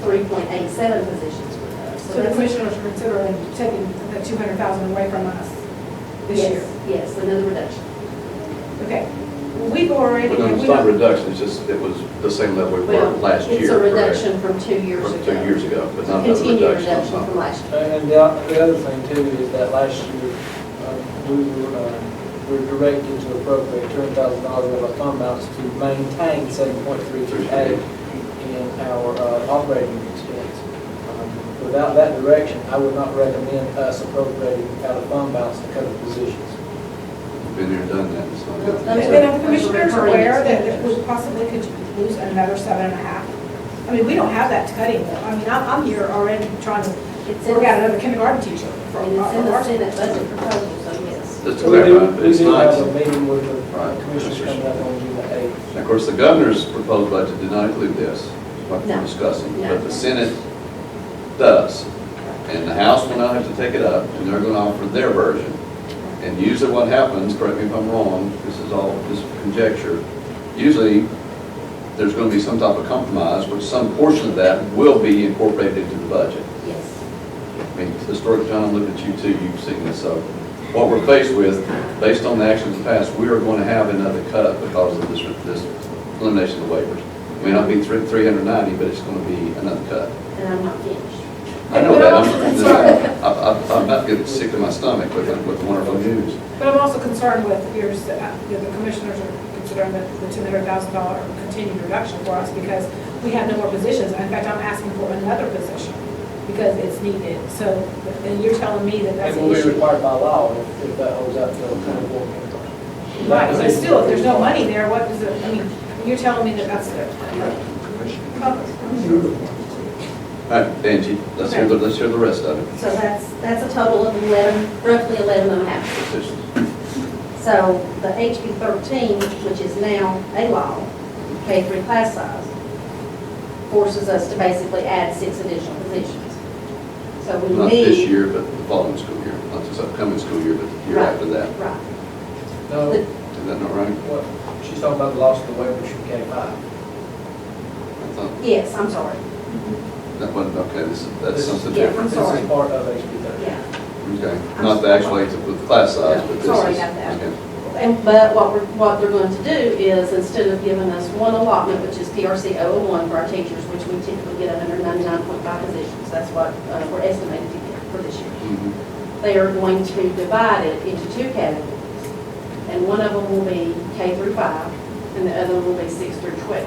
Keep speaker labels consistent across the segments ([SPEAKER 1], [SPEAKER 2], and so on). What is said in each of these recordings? [SPEAKER 1] three point eight seven positions with us.
[SPEAKER 2] So the
[SPEAKER 1] that's-
[SPEAKER 2] commissioners are considering taking the two hundred thousand away from us this
[SPEAKER 1] Yes,
[SPEAKER 2] year?
[SPEAKER 1] Yes, another reduction.
[SPEAKER 2] Okay. Well, We've already,
[SPEAKER 3] Well, no, it's
[SPEAKER 2] we
[SPEAKER 3] not a
[SPEAKER 2] don't,
[SPEAKER 3] reduction, it's just, it was the same level we were
[SPEAKER 1] Well,
[SPEAKER 3] last year.
[SPEAKER 1] It's a
[SPEAKER 3] correct?
[SPEAKER 1] reduction from two years ago.
[SPEAKER 3] From two years ago, but not a
[SPEAKER 1] Continued
[SPEAKER 3] reduction
[SPEAKER 1] reduction
[SPEAKER 3] on
[SPEAKER 1] from
[SPEAKER 3] something.
[SPEAKER 1] last year.
[SPEAKER 4] And the o- the other thing too is that last year, um, we were, uh, we were directed to appropriate two hundred thousand dollars of our fund balance to maintain seven point three three eight in our uh, operating expense. Um, Without that direction, I would not recommend us appropriating out of fund balance to cover positions.
[SPEAKER 3] Been there, done that, it's not
[SPEAKER 1] Well,
[SPEAKER 2] and
[SPEAKER 1] that's-
[SPEAKER 3] good.
[SPEAKER 2] then are
[SPEAKER 1] Those
[SPEAKER 2] the
[SPEAKER 1] are
[SPEAKER 2] commissioners
[SPEAKER 1] recurring
[SPEAKER 2] aware that that
[SPEAKER 1] expenditures.
[SPEAKER 2] we possibly could lose another seven and a half? I mean, we don't have that to cut anymore. I mean, I'm, I'm here already trying to
[SPEAKER 1] It's in,
[SPEAKER 2] work out
[SPEAKER 1] and
[SPEAKER 2] another kindergarten teacher for our,
[SPEAKER 1] it's in
[SPEAKER 2] for
[SPEAKER 1] the
[SPEAKER 2] our
[SPEAKER 1] Senate budget proposal, so yes.
[SPEAKER 3] Just to
[SPEAKER 4] We do-
[SPEAKER 3] clarify, it's
[SPEAKER 4] We do
[SPEAKER 3] not.
[SPEAKER 4] have a meeting with
[SPEAKER 3] Right.
[SPEAKER 4] the commissioners coming up on June the eighth.
[SPEAKER 3] Of course, the governor's proposed budget did not include this, what
[SPEAKER 1] No.
[SPEAKER 3] we're discussing,
[SPEAKER 1] No.
[SPEAKER 3] but the Senate does. And the House will now have to take it up, and they're gonna offer their version. And usually what happens, correct me if I'm wrong, this is all just conjecture, usually there's gonna be some type of compromise, which some portion of that will be incorporated into the budget.
[SPEAKER 1] Yes.
[SPEAKER 3] I mean, historic, John, look at you too, you've seen this, so what we're faced with, based on the actions of the past, we are going to have another cut because of this, this elimination of waivers. It May not be three, three hundred ninety, but it's going to be another cut.
[SPEAKER 1] And I'm not finished.
[SPEAKER 3] I know that, I'm, I- I- I'm about getting sick to my stomach with, with wonderful news.
[SPEAKER 2] But I'm also concerned with, here's, the you know, the commissioners are considering the the $200,000 continued reduction for us because we have no more positions. In fact, I'm asking for another position because it's needed. So, and you're telling me that that's
[SPEAKER 4] And
[SPEAKER 2] an
[SPEAKER 4] we'll be
[SPEAKER 2] issue.
[SPEAKER 4] required by law if if that holds up to the county board meeting.
[SPEAKER 2] Right, but still, if there's no money there, what does it, I mean, you're telling me that that's the...
[SPEAKER 3] All right, Angie, let's hear the, let's hear the rest of it.
[SPEAKER 1] So that's, that's a total of eleven, roughly eleven and a half.
[SPEAKER 3] Decisions.
[SPEAKER 1] So the HB thirteen, which is now a law, K three class size, forces us to basically add six additional positions. So we need.
[SPEAKER 3] Not this year, but the following school year, not this upcoming school year, but the year
[SPEAKER 1] Right.
[SPEAKER 3] after that.
[SPEAKER 1] Right.
[SPEAKER 4] No,
[SPEAKER 1] The-
[SPEAKER 3] Is that not right?
[SPEAKER 4] what, she's talking about the loss of the waivers from K five.
[SPEAKER 3] I thought,
[SPEAKER 1] Yes, I'm sorry.
[SPEAKER 3] that wasn't, okay, this, is- that's
[SPEAKER 4] This-
[SPEAKER 3] something
[SPEAKER 1] Yeah. I'm
[SPEAKER 3] different.
[SPEAKER 4] This
[SPEAKER 1] sorry.
[SPEAKER 4] is part of HB thirty.
[SPEAKER 1] Yeah.
[SPEAKER 3] Okay, not the actual eight with the class size, but this is.
[SPEAKER 1] Sorry about that.
[SPEAKER 3] okay.
[SPEAKER 1] And, but what we're, what they're going to do is, instead of giving us one allotment, which is PRC 001 for our teachers, which we typically get 199.5 positions, that's what uh, we're estimated to get for this year.
[SPEAKER 3] Mhm.
[SPEAKER 1] They are going to divide it into two categories. And one of them will be K through 5, and the other will be 6 through 12.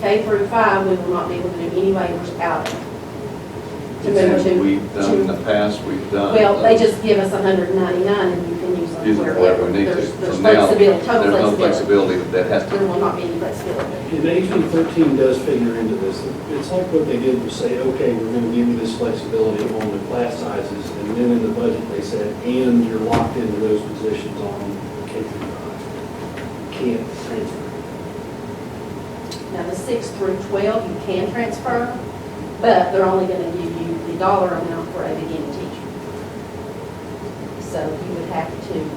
[SPEAKER 1] K through 5, we will not be able to do any waivers out of. To move
[SPEAKER 3] And
[SPEAKER 1] to.
[SPEAKER 3] We've done in the past, we've done.
[SPEAKER 1] Well, they just give us hundred and ninety-nine and you can use
[SPEAKER 3] Use
[SPEAKER 1] them
[SPEAKER 3] it wherever
[SPEAKER 1] wherever.
[SPEAKER 3] we need to.
[SPEAKER 1] There's there's
[SPEAKER 3] From now,
[SPEAKER 1] flexibility,
[SPEAKER 3] There's
[SPEAKER 1] total flexibility.
[SPEAKER 3] no
[SPEAKER 1] Mm.
[SPEAKER 3] flexibility that has
[SPEAKER 1] There
[SPEAKER 3] to,
[SPEAKER 1] will not be any flexibility.
[SPEAKER 5] Yeah, The HB thirteen does figure into this. It's like what they did was say, okay, we're gonna give you this flexibility on the class sizes, and then in the budget, they said, and you're locked into those positions on K through nine. Can't transfer.
[SPEAKER 1] Now, the six through twelve, you can transfer, but they're only gonna give you the dollar amount for a beginning teacher. So you would have to,
[SPEAKER 3] and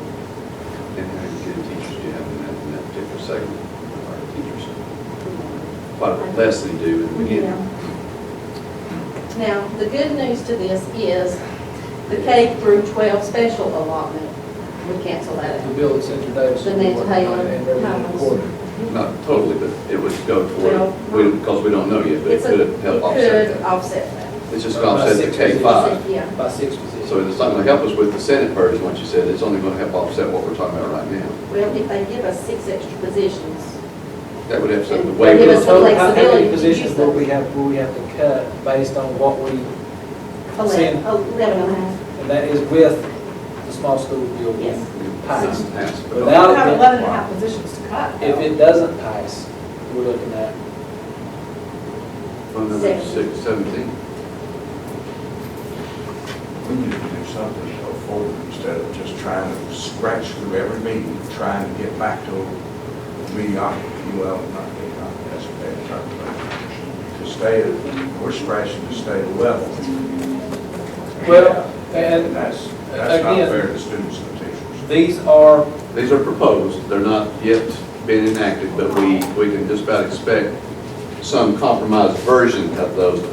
[SPEAKER 3] how many good teachers do you have in that, in that particular segment of our teachers? Quite a bit less than you do in the beginning.
[SPEAKER 1] Now, the good news to this is the K through twelve special allotment would cancel that
[SPEAKER 4] The
[SPEAKER 1] out.
[SPEAKER 4] bill at Central Davis.
[SPEAKER 1] The Nancy Taylor
[SPEAKER 4] And Reverend
[SPEAKER 1] House.
[SPEAKER 4] Gordon.
[SPEAKER 3] Not totally, but it would go
[SPEAKER 1] Well,
[SPEAKER 3] toward, we, because we don't know yet, but it
[SPEAKER 1] It's a-
[SPEAKER 3] could help
[SPEAKER 1] It
[SPEAKER 3] offset
[SPEAKER 1] could
[SPEAKER 3] that.
[SPEAKER 1] offset that.
[SPEAKER 3] It's just gonna offset the K five.
[SPEAKER 1] Yeah,
[SPEAKER 4] By six positions.
[SPEAKER 3] So it's not gonna help us with the Senate version, what you said, it's only gonna help offset what we're talking about right now.
[SPEAKER 1] well, if they give us six extra positions,
[SPEAKER 3] That would have some, the
[SPEAKER 1] And
[SPEAKER 3] way
[SPEAKER 1] give
[SPEAKER 3] we
[SPEAKER 1] us the
[SPEAKER 4] So How
[SPEAKER 1] flexibility to
[SPEAKER 4] many positions
[SPEAKER 1] use
[SPEAKER 4] will
[SPEAKER 1] them.
[SPEAKER 4] we have, will we have to cut based on what we,
[SPEAKER 1] eleven,
[SPEAKER 4] Same.
[SPEAKER 1] eleven and a half,
[SPEAKER 4] and that is with the small school bill?
[SPEAKER 1] yes.
[SPEAKER 4] Pass.
[SPEAKER 3] Pass.
[SPEAKER 2] We
[SPEAKER 4] Without-
[SPEAKER 2] have 11 and a half positions to cut.
[SPEAKER 4] If it doesn't pass, we're looking at
[SPEAKER 3] Phone number six seventeen.
[SPEAKER 6] We need to do something to go forward instead of just trying to scratch through every meeting, trying to get back to mediocrity. Well, not mediocrity, that's a bad term, but to stay, at- we're scratching to stay level.
[SPEAKER 4] Well, and-
[SPEAKER 6] that's, that's not
[SPEAKER 4] again-
[SPEAKER 6] fair to students and teachers.
[SPEAKER 4] These are,
[SPEAKER 3] These are proposed, they're not yet been enacted, but we, we can just about expect some compromised version of those to